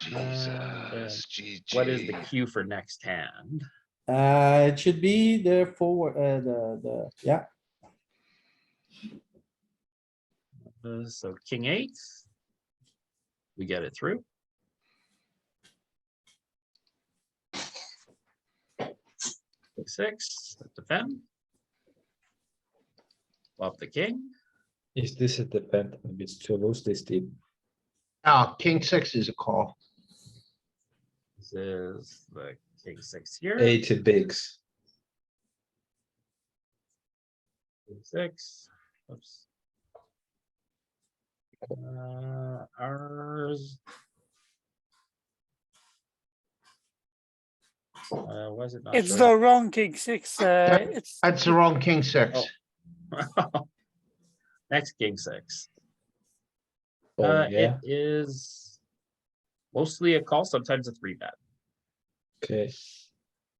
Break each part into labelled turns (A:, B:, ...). A: Jesus,
B: Um, What is the
A: GG.
B: cue for next hand?
C: Uh, it should be the four, uh, the, the, yeah,
B: Uh, So king eight. We get it through. King Six, let's defend. Flop the king.
D: Is this a depend? Maybe it's too loose this deep.
E: Oh, king six is a call.
B: This is the king six here.
D: Eighty bigs.
B: King Six, oops. Uh, ours. Uh, was it not?
F: It's
B: showing
F: the wrong king six, uh,
E: Yep.
F: it's,
E: That's the wrong king six.
B: Oh. Next king six. Uh,
D: Oh,
B: it
D: yeah,
B: is mostly a call, sometimes a three bet.
D: okay.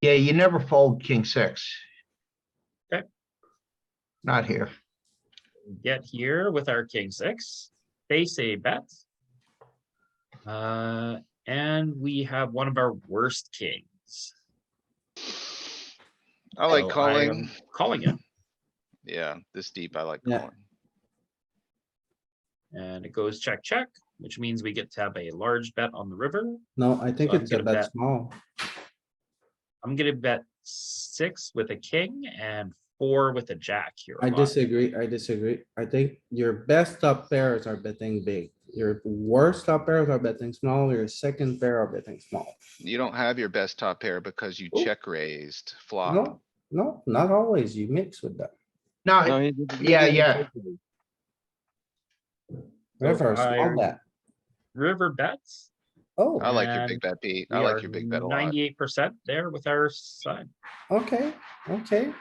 E: Yeah, you never fold king six.
B: Okay.
E: Not here.
B: Get here with our king six, face a bet. Uh, and we have one of our worst kings.
A: I
B: So
A: like
B: I
A: calling.
B: am Calling it,
A: Yeah, this deep, I like
C: Yeah.
A: calling.
B: and it goes check, check, which means we get to have a large bet on the river.
C: no, I think
B: So I'm
C: it's a
B: gonna
C: bet
B: bet.
C: small.
B: I'm gonna bet six with a king and four with a jack here.
C: I
B: on.
C: disagree, I disagree. I think your best top pairs are betting big. Your worst top pairs are betting small, your second pair are betting small.
A: You don't have your best top pair because you
C: Ooh.
A: check raised flop.
C: No, no, not always. You mix with that.
E: No, yeah, yeah.
B: So
C: River, small
B: I-
C: bet.
B: River bets.
C: Oh,
A: I like your big
B: And
A: bet beat. I like your big bet a lot.
B: Ninety-eight percent there with our side,
C: okay, okay.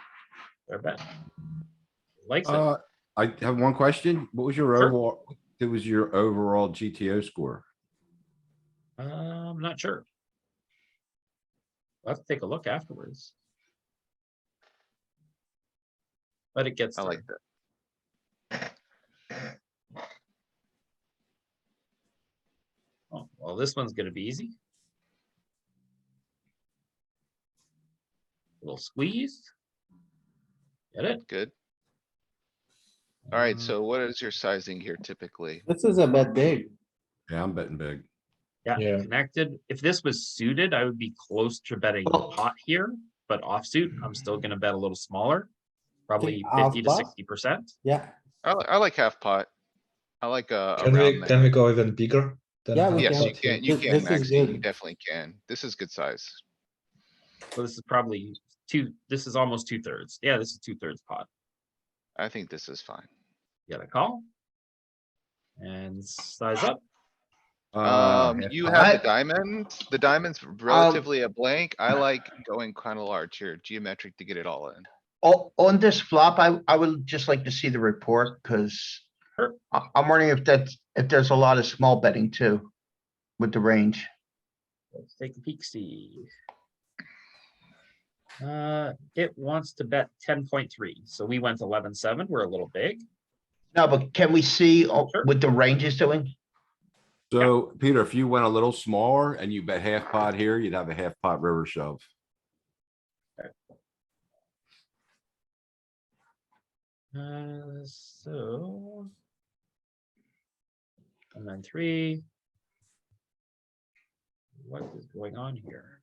B: our bet. Likes it.
G: Uh, I have one question. What was your
B: Sure.
G: overall, what was your overall GTO score?
B: Uh, I'm not sure. We'll have to take a look afterwards. But it gets
A: I
B: like
A: like that.
B: Oh, well, this one's gonna be easy. Little squeeze. Get it?
A: Good. Alright,
B: Uh,
A: so what is your sizing here typically?
C: This is a bet big.
G: Yeah, I'm betting big.
B: Yeah,
D: Yeah.
B: connected. If this was suited, I would be close to betting
E: Well-
B: pot here, but offsuit, I'm still gonna bet a little smaller. Probably
C: half
B: fifty to
C: pot?
B: sixty percent.
C: Yeah,
A: I, li- I like half pot. I like, uh,
D: Can we,
A: around
D: can
A: there.
D: we go even bigger? than
C: Yeah, we
D: half
A: Yes, you
C: can.
D: pot?
A: can, you
C: Th-
A: can,
C: this is
A: Max. You
C: good.
A: definitely can. This is good size.
B: So this is probably two, this is almost two thirds. Yeah, this is two thirds pot.
A: I think this is fine.
B: You got a call. And size up.
G: Uh,
A: Um,
G: half
A: you
G: pot.
A: have the diamond. The diamond's
E: um,
A: relatively a blank. I like going kinda large here, geometric to get it all in.
E: Oh, on this flop, I, I would just like to see the report because
B: Sure.
E: I, I'm wondering if that's, if there's a lot of small betting too with the range.
B: Let's take a peek, see. Uh, it wants to bet ten point three, so we went eleven seven, we're a little big.
E: No, but can we see uh,
B: Sure.
E: what the range is doing?
G: So Peter, if you went a little smaller and you bet half pot here, you'd have a half pot river shove.
B: Uh, so. And then three. What is going on here?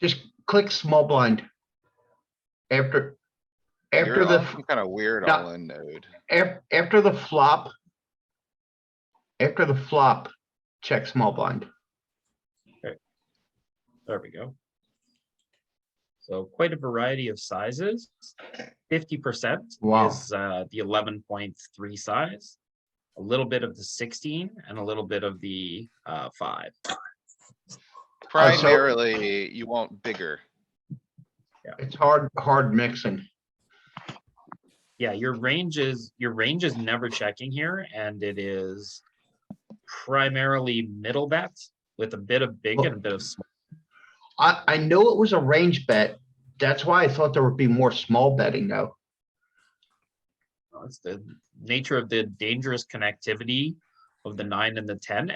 E: Just click small blind. After, after
A: You're
E: the.
A: on
E: f-
A: some kinda weird
E: Yeah.
A: all in node.
E: Af- after the flop. After the flop, check small blind.
B: There we go. So quite a variety of sizes. Fifty percent
E: Wow.
B: is uh, the eleven point three size. A little bit of the sixteen and a little bit of the uh, five.
E: Oh, so-
A: Primarily, you want bigger.
E: It's hard, hard mixing.
B: Yeah, your range is, your range is never checking here and it is primarily middle bet with a bit of big and a bit of small.
E: I, I know it was a range bet. That's why I thought there would be more small betting though.
B: It's the nature of the dangerous connectivity of the nine and the ten